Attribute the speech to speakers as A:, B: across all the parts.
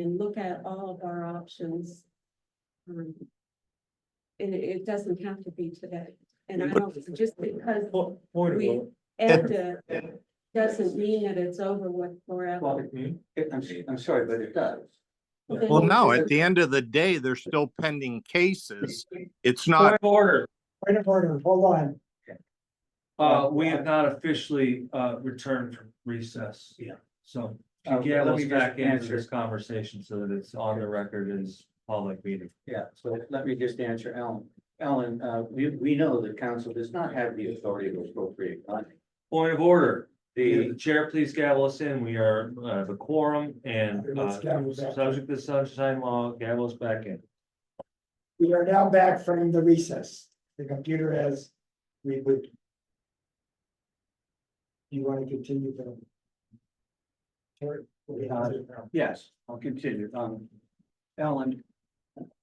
A: and look at all of our options. Um, And it, it doesn't have to be today, and I don't, just because
B: Po- Point of
A: We-
B: order.
A: EBDA
B: Yeah.
A: doesn't mean that it's over with forever.
B: Well, it- I'm, s- I'm sorry, but it does.
C: Well, no, at the end of the day, they're still pending cases. It's not,
B: of order.
D: Point of order, hold on.
B: Uh, we have not officially, uh, returned from recess.
D: Yeah.
B: So
E: Uh,
B: Gail
E: let me
B: us back
E: just
B: into
E: answer.
B: this conversation so that it's on the record as public meeting.
E: Yeah, so let me just answer Ellen. Ellen, uh, we, we know the council does not have the authority to appropriate money.
B: Point of order. The
E: The,
B: chair, please gavel us in. We are, uh, the quorum and,
D: Let's
B: uh,
D: gavel back.
B: subject to sunshine law, gavel us back in.
D: We are now back from the recess. The computer has rebooted. You want to continue the? Terry, we have to-
E: yes, I'll continue. Um, Ellen,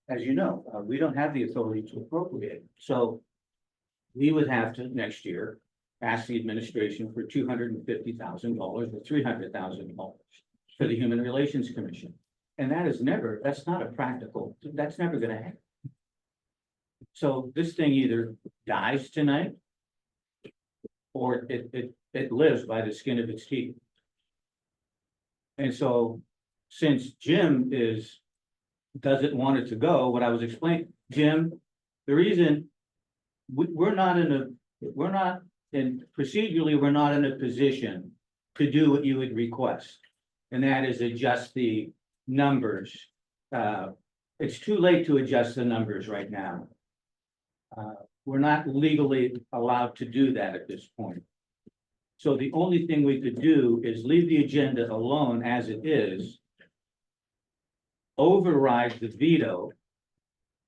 E: as you know, uh, we don't have the authority to appropriate, so we would have to next year ask the administration for two hundred and fifty thousand dollars or three hundred thousand dollars for the Human Relations Commission. And that is never, that's not a practical, that's never gonna happen. So this thing either dies tonight or it, it, it lives by the skin of its teeth. And so since Jim is, doesn't want it to go, what I was explaining, Jim, the reason we, we're not in a, we're not, and procedurally, we're not in a position to do what you would request. And that is adjust the numbers. Uh, it's too late to adjust the numbers right now. Uh, we're not legally allowed to do that at this point. So the only thing we could do is leave the agenda alone as it is. Override the veto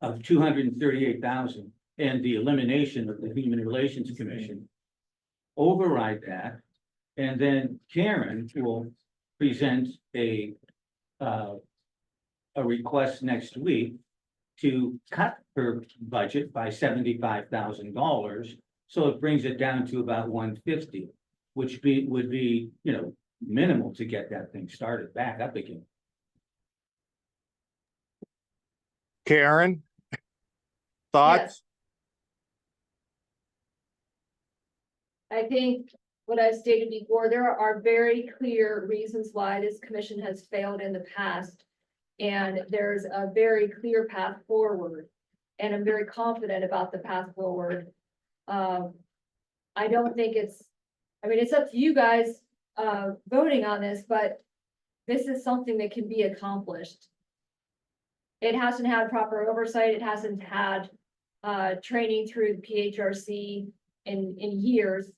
E: of two hundred and thirty-eight thousand and the elimination of the Human Relations Commission. Override that, and then Karen will present a, uh, a request next week to cut her budget by seventy-five thousand dollars. So it brings it down to about one fifty which be, would be, you know, minimal to get that thing started back up again.
C: Karen. Thoughts?
F: I think what I've stated before, there are very clear reasons why this commission has failed in the past. And there's a very clear path forward, and I'm very confident about the path forward. Um, I don't think it's, I mean, it's up to you guys, uh, voting on this, but this is something that can be accomplished. It hasn't had proper oversight, it hasn't had, uh, training through PHRC in, in years.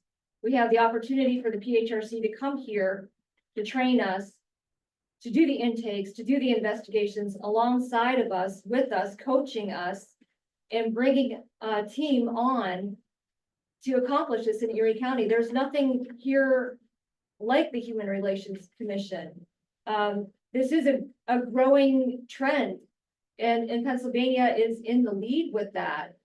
F: We have the opportunity for the PHRC to come here to train us, to do the intakes, to do the investigations alongside of us, with us, coaching us, and bringing a team on to accomplish this in Erie County. There's nothing here like the Human Relations Commission. Um, this is a, a growing trend, and, and Pennsylvania is in the lead with that.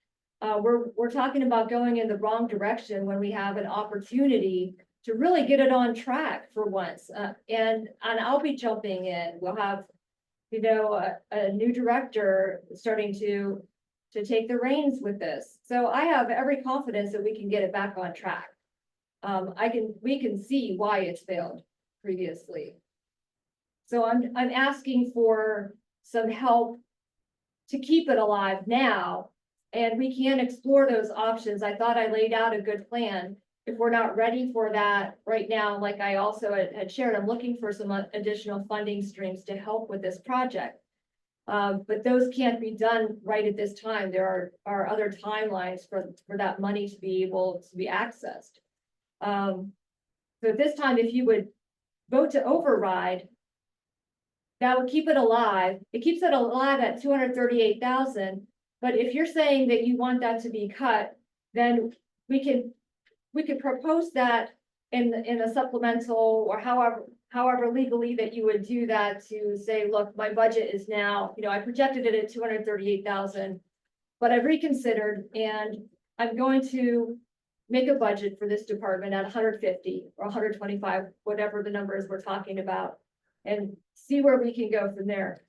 F: Uh, we're, we're talking about going in the wrong direction when we have an opportunity to really get it on track for once. Uh, and, and I'll be jumping in. We'll have, you know, a, a new director starting to, to take the reins with this. So I have every confidence that we can get it back on track. Um, I can, we can see why it's failed previously. So I'm, I'm asking for some help to keep it alive now and we can explore those options. I thought I laid out a good plan. If we're not ready for that right now, like I also had had shared, I'm looking for some additional funding streams to help with this project. Um, but those can't be done right at this time. There are, are other timelines for, for that money to be able to be accessed. Um, so at this time, if you would vote to override, that would keep it alive. It keeps it alive at two hundred thirty-eight thousand, but if you're saying that you want that to be cut, then we can, we could propose that in, the- in a supplemental or however, however legally that you would do that to say, look, my budget is now, you know, I projected it at two hundred thirty-eight thousand, but I've reconsidered and I'm going to make a budget for this department at hundred fifty or hundred twenty-five, whatever the number is we're talking about. And see where we can go from there.